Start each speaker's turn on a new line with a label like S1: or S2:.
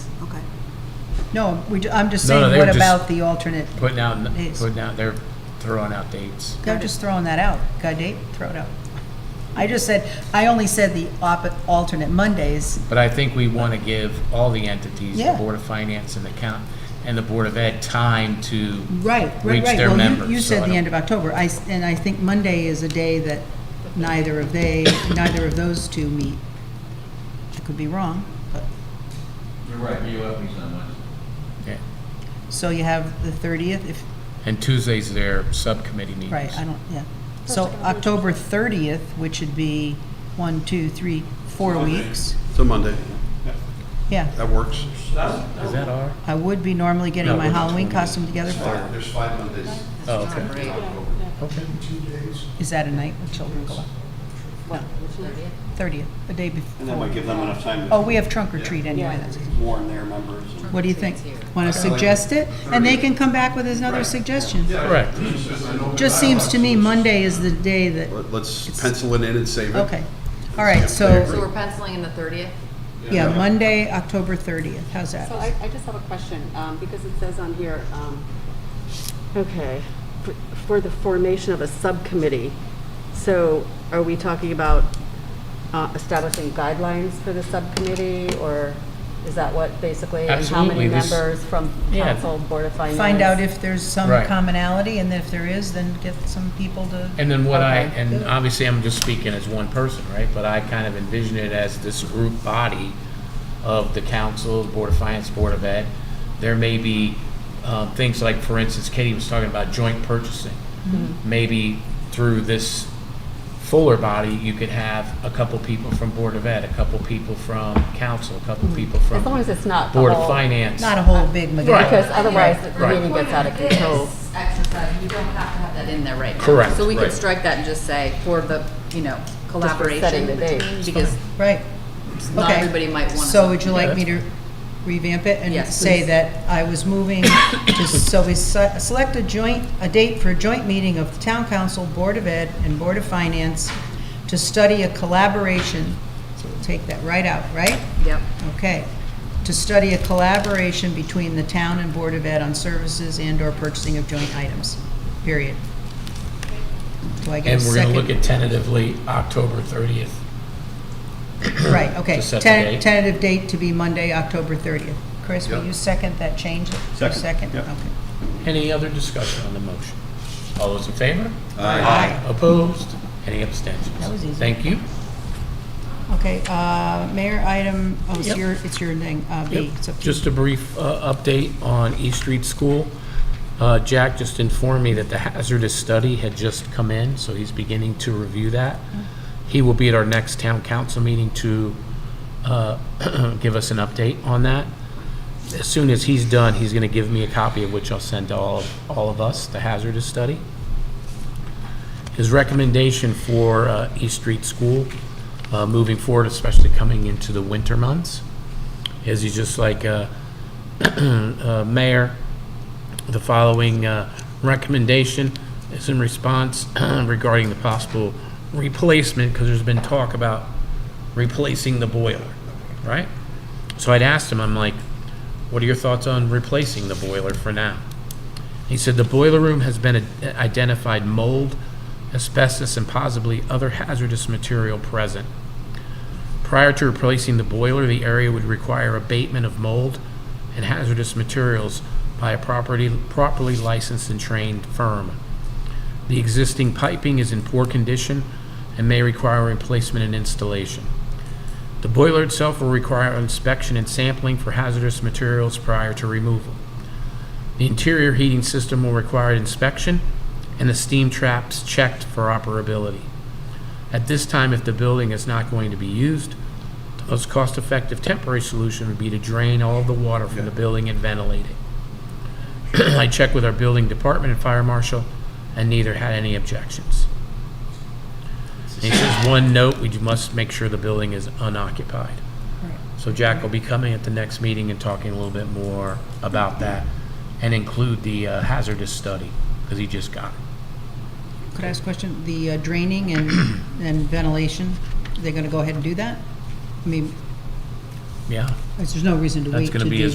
S1: Okay.
S2: No, we, ju- I'm just
S3: No, no,
S2: saying,
S3: they
S2: what
S3: were just
S2: about the alternate?
S3: Putting out,
S2: Dates.
S3: putting out, they're throwing out dates.
S2: They're just throwing that out. Got a date? Throw it out. I just said, I only said the op- alternate Mondays.
S3: But I think we want to give all the entities, the
S2: Yeah.
S3: Board of Finance and the count, and the Board of Ed, time to.
S2: Right, right,
S3: Reach
S2: right.
S3: their
S2: Well, you-
S3: members,
S2: You
S3: so I
S2: said the
S3: don't-
S2: end of October. I, s- and I think Monday is a day that neither of they, neither of those two meet. I could be wrong, but,
S4: You're right, you up me on Wednesday.
S3: Yeah.
S2: so you have the 30th, if,
S3: And Tuesday's their subcommittee meetings.
S2: Right, I don't, yeah. So October 30th, which would be one, two, three, four weeks.
S5: It's a Monday.
S2: Yeah,
S5: That works.
S3: Is that our?
S2: I would be normally getting
S3: No,
S2: my
S3: it was
S2: Halloween costume together. for-
S5: There's five Mondays.
S3: Oh, okay. Okay.
S2: Is that a night when children go out?
S1: What, which Olivia?
S2: 30th, the day
S5: And that
S2: before.
S5: might give them enough time
S2: Oh,
S5: to
S2: we have trunk or treat anyway.
S1: Yeah.
S2: that's-
S5: warn their members.
S2: What do you think? Want to
S5: I like
S2: suggest it? And they can come back with another
S5: Right.
S2: suggestion.
S3: Correct.
S2: Just seems to me Monday is the day that,
S5: Let's pencil it in and save it.
S2: okay. All right,
S1: So
S2: so,
S1: we're penciling in the thirtieth?
S2: yeah, Monday, October 30th. How's that?
S6: So I, I just have a question, um, because it says on here, um, okay, for- for the formation of a subcommittee. So are we talking about uh, establishing guidelines for the subcommittee, or is that what basically? and
S3: Absolutely,
S6: How many
S3: this-
S6: members from
S3: Yeah.
S6: council, board of finance?
S2: Find out if there's some
S3: Right.
S2: commonality, and if there is, then get some people to.
S3: And then what I,
S6: Okay.
S3: and obviously I'm just speaking as one person, right? But I kind of envision it as this group body of the council, Board of Finance, Board of Ed. There may be um, things like, for instance, Katie was talking about joint purchasing.
S6: Mm-hmm.
S3: Maybe through this fuller body, you could have a couple people from Board of Ed, a couple people from council, a couple people from.
S6: Mm-hmm. As long as it's not the
S3: Board of
S6: whole-
S3: Finance.
S2: Not a whole big
S6: Because
S2: McGuire.
S6: otherwise, the
S3: Right.
S6: meeting gets out of control.
S1: Exercise, you don't have to have that in there right now.
S3: Correct,
S1: So we could
S3: right.
S1: strike that and just say, for the, you know,
S6: setting
S1: collaboration
S6: the date.
S1: between, because
S2: Right.
S1: not
S2: Okay.
S1: everybody might want to.
S2: So would you like me to revamp it and
S1: Yes,
S2: say
S1: please.
S2: that I was moving to, so we se- select a joint, a date for a joint meeting of the Town Council, Board of Ed, and Board of Finance to study a collaboration, so we'll take that right out, right?
S1: Yep.
S2: Okay. To study a collaboration between the town and Board of Ed on services and/or purchasing of joint items, period. Do I get a
S3: And we're
S2: second?
S3: going to look at tentatively October 30th.
S2: Right, okay.
S3: to set the
S2: Ten-
S3: date.
S2: Tentative date to be Monday, October 30th. Chris, will
S5: Yep.
S2: you second that change? You
S5: Second, yep.
S2: okay.
S3: Any other discussion on the motion? All those in favor?
S2: Aye.
S3: Opposed? Any abstentions?
S2: That was easy.
S3: Thank you.
S2: Okay, uh, Mayor, item, oh, it's
S3: Yep.
S2: your, it's your thing, uh, B.
S3: Yep.
S2: It's up to you.
S3: Just a brief uh, update on East Street School. Uh, Jack just informed me that the hazardous study had just come in, so he's beginning to review that.
S2: Mm-hmm.
S3: He will be at our next town council meeting to uh, give us an update on that. As soon as he's done, he's going to give me a copy of which I'll send to all, all of us, the hazardous study. his recommendation for uh, East Street School uh, moving forward, especially coming into the winter months, is he's just like, uh, uh, Mayor, the following uh, recommendation is in response regarding the possible replacement, because there's been talk about replacing the boiler, right? So I'd asked him, I'm like, what are your thoughts on replacing the boiler for now? He said the boiler room has been ad- identified mold, asbestos, and possibly other hazardous material present. Prior to replacing the boiler, the area would require abatement of mold and hazardous materials by a property, properly licensed and trained firm. The existing piping is in poor condition and may require replacement and installation. The boiler itself will require inspection and sampling for hazardous materials prior to removal. The interior heating system will require inspection and the steam traps checked for operability. At this time, if the building is not going to be used, the most cost-effective temporary solution would be to drain all of the water from the building and ventilate it. I checked with our building department and fire marshal, and neither had any objections. And he says, one note, we must make sure the building is unoccupied. So Jack will be coming at the next meeting and talking a little bit more about that, and include the uh, hazardous study, because he just got it.
S2: Could I ask a question? The uh, draining and, and ventilation, they're going to go ahead and do that? I mean,
S3: Yeah?
S2: there's no reason to
S3: That's
S2: wait to
S3: gonna
S2: do
S3: be his